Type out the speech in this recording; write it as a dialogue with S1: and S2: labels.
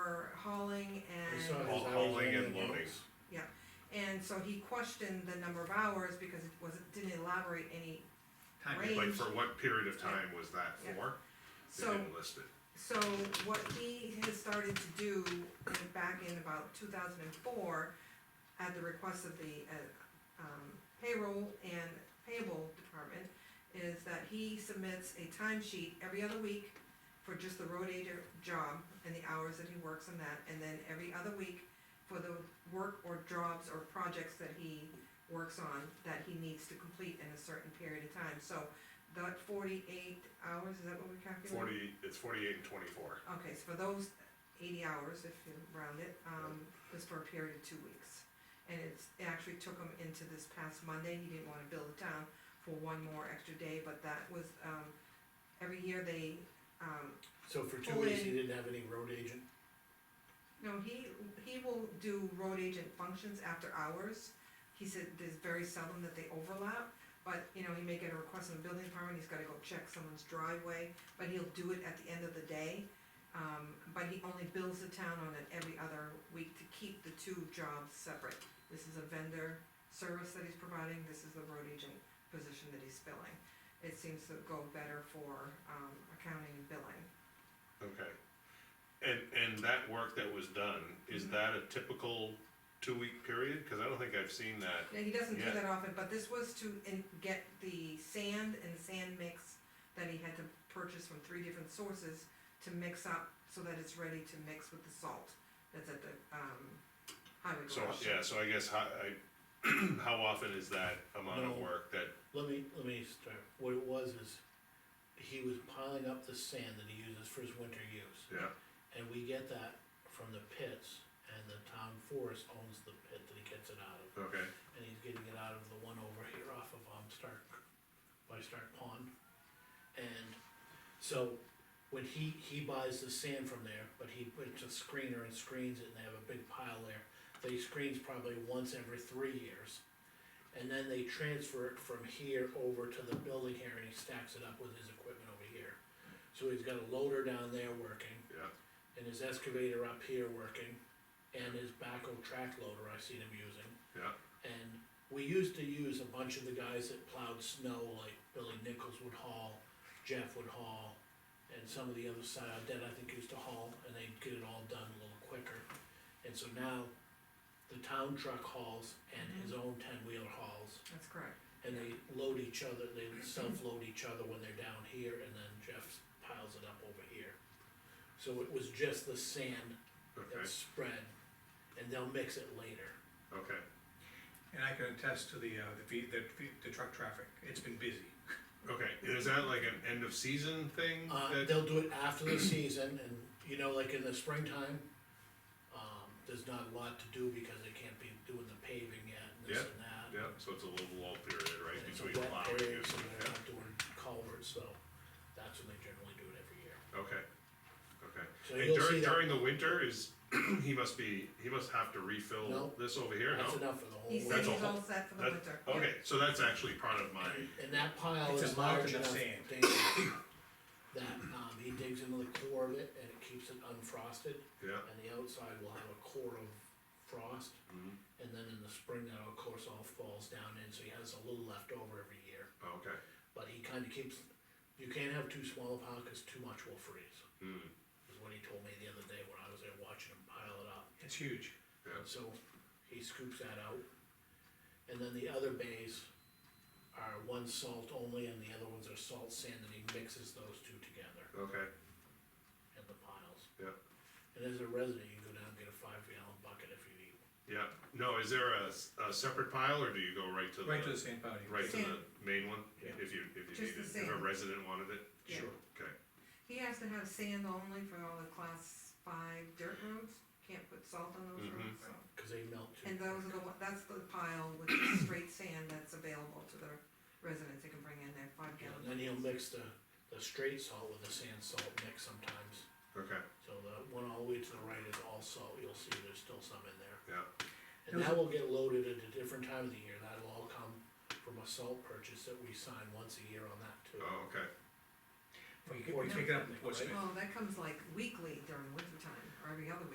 S1: hauling
S2: saw
S1: and,
S2: it.
S3: All hauling and loading.
S1: and so he questioned the number of hours because it was, it didn't elaborate any.
S4: Time.
S1: Right.
S3: Like for what period of time was that for? They
S1: So,
S3: didn't list it.
S1: so what he has started to do in- back in about two thousand and four, at the request of the, uh, um, payroll and payable department, is that he submits a timesheet every other week for just the road agent job and the hours that he works on that, and then every other week for the work or jobs or projects that he works on that he needs to complete in a certain period of time, so that forty-eight hours, is that what we calculated?
S3: Forty, it's forty-eight and twenty-four.
S1: Okay, so for those eighty hours, if you round it, um, was for a period of two weeks. And it's, it actually took him into this past Monday, he didn't wanna bill the town for one more extra day, but that was, um, every year they, um,
S2: So for two
S1: Pull
S2: weeks,
S1: in.
S2: you didn't have any road agent?
S1: no, he, he will do road agent functions after hours. He said there's very seldom that they overlap, but, you know, he may get a request from the building department, he's gotta go check someone's driveway, but he'll do it at the end of the day. Um, but he only bills the town on it every other week to keep the two jobs separate. This is a vendor service that he's providing, this is the road agent position that he's filling. It seems to go better for, um, accounting and billing.
S3: Okay. And, and that work that was done, is
S1: Mhm.
S3: that a typical two-week period? Cause I don't think I've seen that.
S1: Yeah, he doesn't do
S3: Yeah.
S1: that often, but this was to in, get the sand and sand mix that he had to purchase from three different sources to mix up so that it's ready to mix with the salt that's at the, um, highway
S3: So,
S1: garage.
S3: yeah, so I guess how, I, how often is that amount of
S2: No.
S3: work that,
S2: Let me, let me start, what it was is, he was piling up the sand that he uses for his winter use.
S3: yeah,
S2: And we get that from the pits, and the town forest owns the pit that he gets it out of.
S3: okay,
S2: And he's getting it out of the one over here off of, um, Stark, by Stark Pond. And so, when he, he buys the sand from there, but he puts a screener and screens it, and they have a big pile there. They screens probably once every three years. And then they transfer it from here over to the building here, and he stacks it up with his equipment over here. So he's got a loader down there working
S3: yeah.
S2: and his excavator up here working, and his backhoe track loader I seen him using.
S3: Yeah.
S2: And we used to use a bunch of the guys that plowed snow, like Billy Nichols would haul, Jeff would haul, and some of the other side, that I think used to haul, and they'd get it all done a little quicker. And so now, the town truck hauls and his own ten-wheeler hauls,
S1: That's correct.
S2: and they load each other, they self-load each other when they're down here, and then Jeff piles it up over here. So it was just the sand
S3: Okay,
S2: that's spread, and they'll mix it later.
S3: okay.
S5: And I can attest to the, uh, the ve- the, ve- the truck traffic, it's been busy.
S3: Okay, is that like an end of season thing?
S2: Uh,
S3: that-
S2: they'll do it after the season, and, you know, like in the springtime, um, there's not a lot to do because they can't be doing the paving yet, and this
S3: Yeah,
S2: and that.
S3: Yeah, so it's a little lull period, right,
S2: And it's a
S3: between
S2: wet
S3: plowing
S2: area,
S3: and,
S2: so they're
S3: yeah,
S2: not doing culverts, so that's when they generally do it every year.
S3: okay, okay.
S2: So
S3: And
S2: you'll see
S3: during,
S2: that-
S3: during the winter is, he must be, he must have to refill
S2: No.
S3: this over here,
S2: That's
S3: no?
S2: enough for the whole.
S1: He said
S2: winter.
S3: Oh, That's a
S1: he's all
S3: whole-
S1: set for the
S3: that-
S1: winter. Yeah.
S3: Okay, so that's actually part of my,
S2: And that pile
S5: It's a
S2: is large
S5: mountain of
S2: enough,
S5: sand.
S2: Dan, that, um, he digs into the core of it and it keeps it unfrosted,
S3: yeah,
S2: and the outside will have a core of frost.
S3: Mhm.
S2: And then in the spring, that of course all falls down in, so he has a little left over every year,
S3: okay.
S2: but he kinda keeps, you can't have too small a pile, cause too much will freeze.
S3: Mm,
S2: Is what he told me the other day when I was there watching him pile it up.
S5: It's huge.
S3: yeah,
S2: So he scoops that out. And then the other bays are one salt only and the other ones are salt sand and he mixes those two together
S3: okay,
S2: in the piles.
S3: Yeah.
S2: And as a resident, you can go down and get a five gallon bucket if you need one.
S3: yeah. No, is there a, s- a separate pile, or do you go right to the?
S5: Right to the sand patio.
S3: Right to the main one,
S2: Yeah.
S3: if you, if
S1: Just
S3: you needed,
S1: the
S3: if a
S1: same.
S3: resident wanted it?
S1: Yeah. Sure.
S3: Okay,
S1: He has to have sand only for all the class five dirt roads, can't put salt on those
S3: Mhm.
S1: roads, so.
S2: Cause they melt too.
S1: And those are the, one- that's the pile with the straight sand that's available to the residents, they can bring in their five
S2: Yeah,
S1: gallon.
S2: And then he'll mix the, the straight salt with the sand salt mix sometimes.
S3: okay,
S2: So the one all the way to the right is all salt. You'll see there's still some in there.
S3: yeah,
S2: And that will get loaded at a different time of the year, that'll all come from a salt purchase that we sign once a year on that too.
S3: oh, okay,
S5: We, we pick it up, in Portsmouth.
S1: Well, that comes like weekly during winter time, or every other